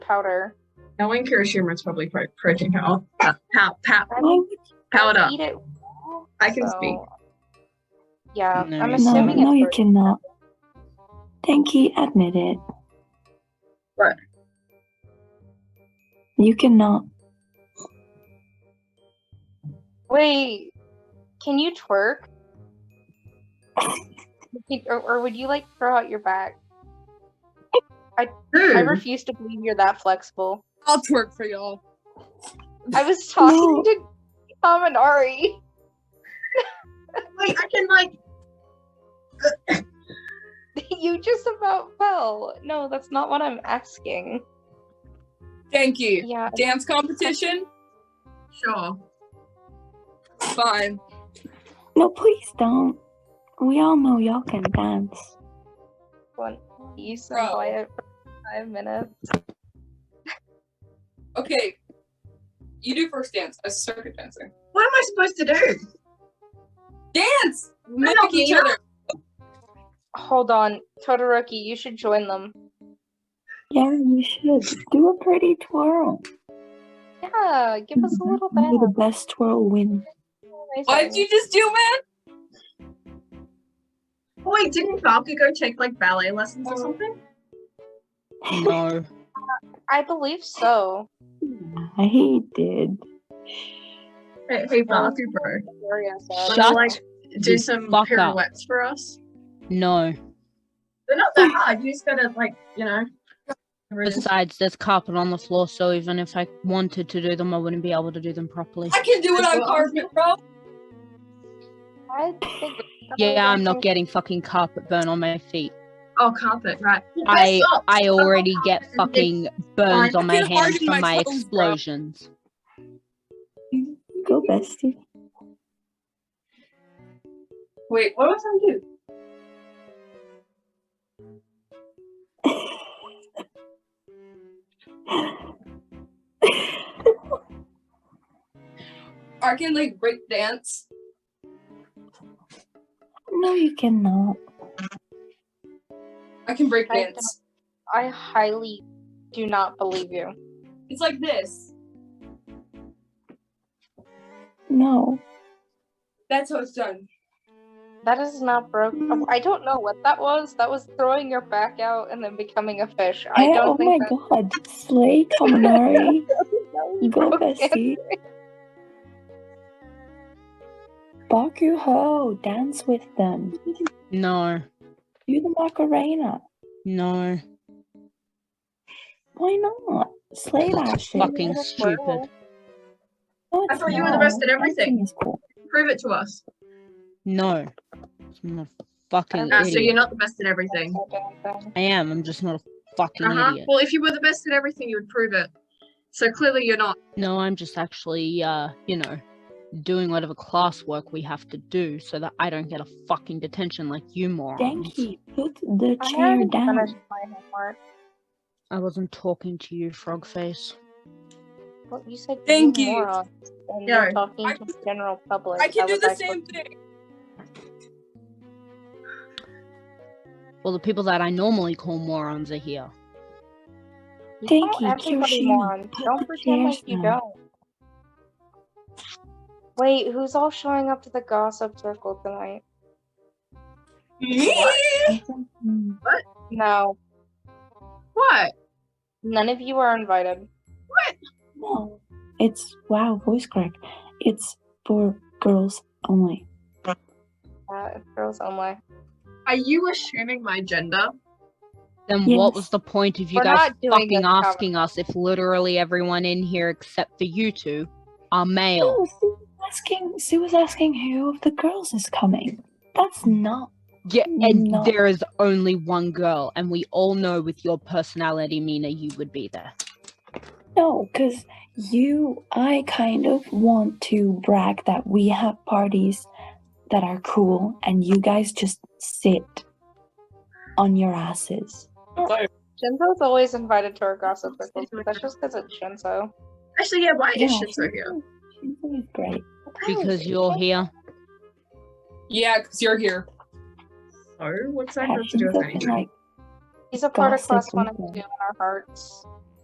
powder. No one cures humors public pro- protein powder. Pow, pow, I mean, Oh, pow, I pow, eat it. I can so- speak. Yeah, No, I'm you- No, assuming no, it's you for- cannot. Tenki, admit it. What? You cannot. Wait, can you twerk? Can- or, or would you like throw out your back? I Hmm. refuse to believe you're that flexible. I'll twerk for y'all. I was talking No. to Tom and Ari. Wait, I can like. You just about fell. No, that's not what I'm asking. Thank you. Yeah, Dance competition? Sure. Fine. No, please don't. We all know y'all can dance. one piece and Bro. quiet for five minutes. Okay. You do first dance as circuit dancer. What am I supposed to do? Dance! Mimic don't each know. other. Hold on, Todoroki, you should join them. Yeah, you should. Do a pretty twirl. Yeah, give us a little May the bit. best twirl win. What'd you just do, man? Wait, didn't Falca go take like ballet lessons or something? No. I believe so. I did. Hey, hey Falca, bro. Gloria said. Wanna, like, Shut. do the some fuck up. pirouettes for us? No. They're not that hard. You just gotta like, you know. Besides, there's carpet on the floor, so even if I wanted to do them, I wouldn't be able to do them properly. I can do it on Well, carpet, bro. I think- Yeah, I'm not getting fucking carpet burn on my feet. Oh, carpet, right? I Socks. I already Oh, get It's fucking burns fine. on my Feel hard hands from in my my toes, bro. explosions. Go, bestie. Wait, what was I do? I can like break dance. No, you cannot. I can break I don't- dance. I highly do not believe you. It's like this. No. That's how it's done. That is not broke. oh, I don't know what that was. That was throwing your back out and then becoming a fish. I Hey, don't oh my think that god. Slay Kaminari. Go, broke dance. bestie. Baku Ho, dance with them. No, Do the Macarena. no, Why not? Slay that that's shit. fucking Little stupid. twirl. No, I it's thought you were the not. best at Dancing everything. is cool. Prove it to us. No, I'm not a fucking Ah, Uh, so you're idiot. not the best at everything. I am. I'm just not a fucking Uh Uh-huh. huh. idiot. Well, if you were the best at everything, you would prove it. So clearly you're not. No, I'm just actually, uh, you know, doing whatever classwork we have to do so that I don't get a fucking detention like you morons. Genki, put the I chair already down. finished my homework. I wasn't talking to you, Frogface. Well, you said Thank you. morons, and Yeah, you're talking I to can- the general public. I can do would the like to- same thing. Well, the people that I normally call morons are here. You Thank call you, everybody Kyoshi. morons. Put Don't the pretend like chairs you down. don't. Wait, who's all showing up to the gossip circle tonight? Me? Mm, No, What? none of you are invited. No. It's wow, voice crack. It's for girls only. Uh, girls only. Are you assuming my gender? Then what was Yes. the point of you We're guys not doing fucking this, Howard. asking us if literally everyone in here except for you two are male? No, Sue was asking Sue was asking who of the girls is coming. That's not Yeah, and No. there is only one girl, and we all know with your personality, Mina, you would be there. No, because you, I kind of want to brag that we have parties that are cool and you guys just sit on your asses. Shinzo's always invited to our gossip circles, but that's just because it's Shinzo. Actually, yeah. Why is Yeah, Shinzo here? Shinzo is great. Because you're here. Yeah, because you're here. So what's that Yeah, have to do with Shinzo can, anything? like, He's a part of Gossip class one and circle. two in our hearts.